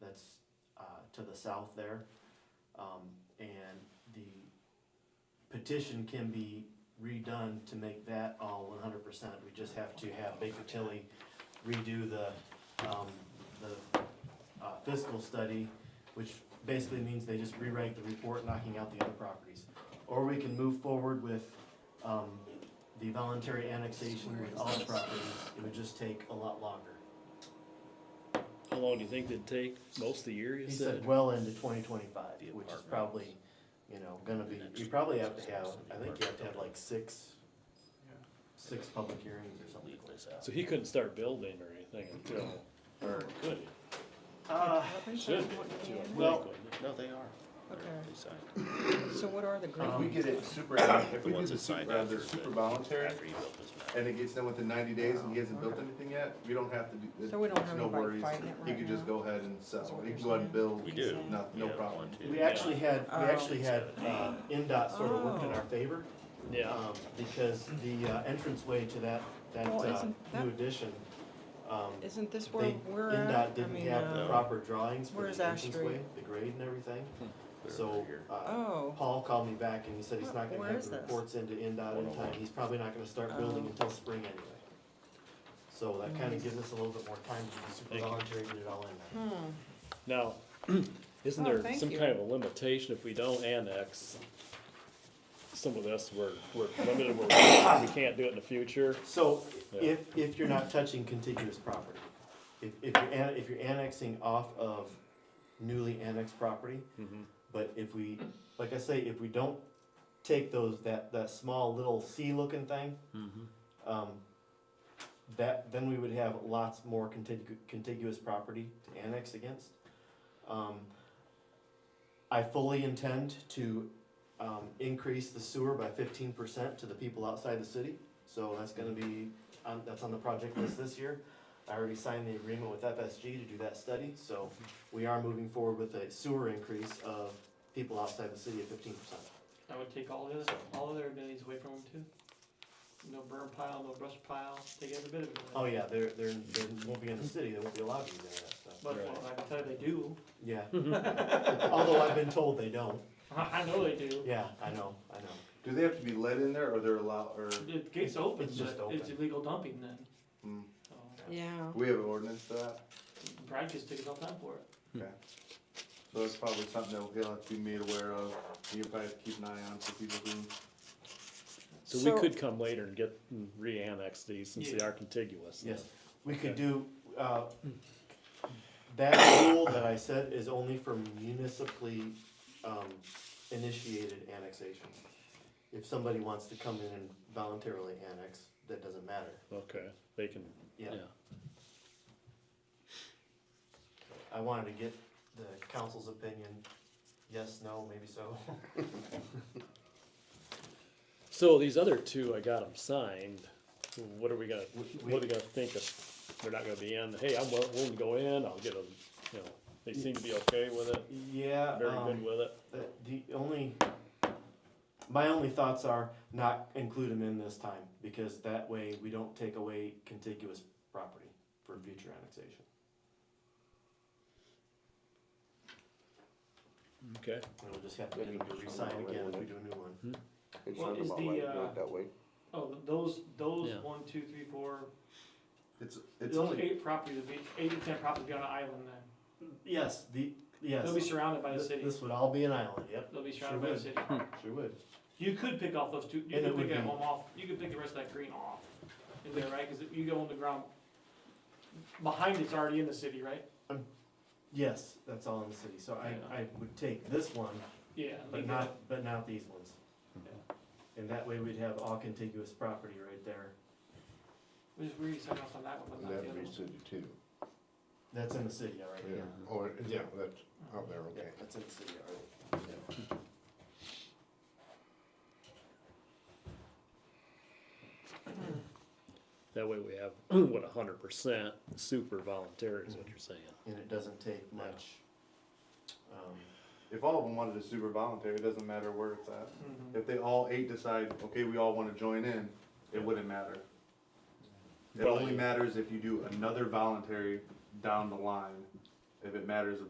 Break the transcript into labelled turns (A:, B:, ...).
A: that's uh, to the south there. Um, And the petition can be redone to make that all one hundred percent. We just have to have Baker Tilly redo the, um, the uh, fiscal study, which basically means they just rewrite the report knocking out the other properties. Or we can move forward with, um, the voluntary annexation with all properties. It would just take a lot longer.
B: How long do you think it'd take? Most of the year, you
A: He said
B: said?
A: well into twenty twenty-five,
B: The
A: which is
B: apartments.
A: probably, you know, gonna be,
B: And
A: you
B: that's-
A: probably have to have,
B: that's the
A: I think you have to have like six, six public hearings or something like
B: So
A: that.
B: he couldn't start building or anything until, or could he?
A: Uh,
B: Should he?
A: Well-
C: No, they are. They're-
D: Okay.
C: They signed.
D: So what are the
E: If
A: Um,
E: we
D: green?
E: get it super,
C: They're
E: if
C: the
E: we do
C: ones
E: the
C: that signed
E: super, uh,
C: after.
E: the
C: the-
E: super voluntary,
C: After he built this map.
E: and it gets done within ninety days and he hasn't built anything yet, we don't have to do,
D: So we don't
E: it's
D: have
E: no
D: anybody
E: worries.
D: fighting it
E: He
D: right
E: could just
D: now?
E: go ahead and sell,
D: what
E: he
D: you're
E: can go ahead and build,
C: We do.
E: no, no
C: Yeah,
E: problem.
C: one, two.
A: we
C: Yeah.
A: actually had, we
D: Oh.
A: actually had, uh, NDOT sort of worked in our favor,
B: Yeah,
A: um, because the uh, entranceway to that, that,
D: Well,
A: uh,
D: isn't that-
A: new addition, um,
D: Isn't this where
A: they,
D: we're at?
A: NDOT
D: I
A: didn't
D: mean,
A: have the
C: uh,
D: uh,
A: proper drawings for
D: where's
A: the
D: Ash
A: entranceway,
D: Street?
A: the grade and everything.
C: They're
A: So,
C: over here.
A: uh,
D: oh,
A: Paul called me back and he said he's
D: Wh-
A: not gonna
D: where
A: have
D: is
A: the
D: this?
A: reports into NDOT in time,
C: 101.
A: he's probably not gonna start building
D: Oh.
A: until spring anyway. So that kinda gives us a little bit more time to be super
B: Thank you.
A: voluntary, and get it all in there.
D: hmm,
B: now, isn't
D: Oh,
B: there
D: thank
B: some
D: you.
B: kind of a limitation if we don't annex? Some of this, we're, we're limited, we're, we can't do it in the future.
A: So,
B: Yeah.
A: if, if you're not touching contiguous property, if, if you're, an- if you're annexing off of newly annexed property, but if we, like I say, if we don't take those, that, that small little C-looking thing, um, that, then we would have lots more contigu- contiguous property to annex against. Um, I fully intend to, um, increase the sewer by fifteen percent to the people outside the city, so that's gonna be, um, that's on the project list this year. I already signed the agreement with FSG to do that study, so we are moving forward with a sewer increase of people outside the city of fifteen percent.
F: I would take all his, all of their amenities away from them too. No burn pile, no brush pile, take every bit of it.
A: Oh, yeah, they're, they're, they won't be in the city, they won't be allowed to use any of that stuff.
F: But well, I can tell you they do,
A: Yeah, although I've been told they don't,
F: I, I know they do,
A: yeah, I know, I know.
E: Do they have to be let in there or they're allowed, or,
F: the gate's open,
A: It's just
F: but it's
A: open.
F: illegal dumping then,
E: hmm,
F: so.
D: yeah.
E: we have an ordinance for that?
F: Brad gets tickets all the time for it,
C: Hmm.
E: Okay. So that's probably something that he'll have to be made aware of, and you'll probably have to keep an eye on for people who,
B: So
D: So-
B: we could come later and get, and re-annex these since they
F: Yeah.
B: are contiguous.
A: Yes, we could do, uh, that rule that I said is only for municipally, um, initiated annexation. If somebody wants to come in and voluntarily annex, that doesn't matter,
B: Okay, they can,
A: yeah.
B: yeah,
A: I wanted to get the council's opinion, yes, no, maybe so.
B: so these other two, I got them signed, what are we gonna,
A: We- we-
B: what are we gonna think if they're not gonna be in, hey, I'm willing willing to go in, I'll get them, you know, they seem to be okay with it,
A: Yeah,
B: very good
A: um,
B: with it.
A: the, the only, my only thoughts are not include them in this time, because that way we don't take away contiguous property for future annexation.
B: Okay.
A: And we'll just have to get them to resign again if we do a new one.
F: What is the, uh, oh, th- those, those
B: Yeah.
F: one, two, three, four,
E: it's, it's
F: those
E: only,
F: eight properties, would be eight to ten properties would be on an island then.
A: Yes, the, yes,
F: They'll be surrounded by the
A: th-
F: city,
A: this would all be an island, yep,
F: they'll be
A: sure
F: surrounded by the
A: would.
F: city.
A: sure would.
F: You could pick off those two, you
A: And it
F: could
A: would
F: pick that
A: be-
F: home off, you could pick the rest of that green off, in there, right, cause if you go on the ground, behind it's already in the city, right?
A: Yes, that's all in the city, so I, I would take this one,
F: Yeah.
A: but
F: leave
A: not, but not these ones.
F: Yeah.
A: And that way we'd have all contiguous property right there,
F: it. Which is weird, you signed off on that one, but not the other one.
A: that's in the city already, yeah.
G: Or, yeah, that's out there,
A: Yeah,
G: okay.
A: that's in the city already.
B: That way we have, what, a hundred percent super voluntary
A: mhm.
B: is what you're saying.
A: And it doesn't take much. Um,
E: if all of them wanted to super voluntary, it doesn't matter where it's at.
F: Mhm.
E: If they all eight decide, okay, we all wanna join in, it wouldn't matter. It only matters if you do another voluntary down the line, if it matters of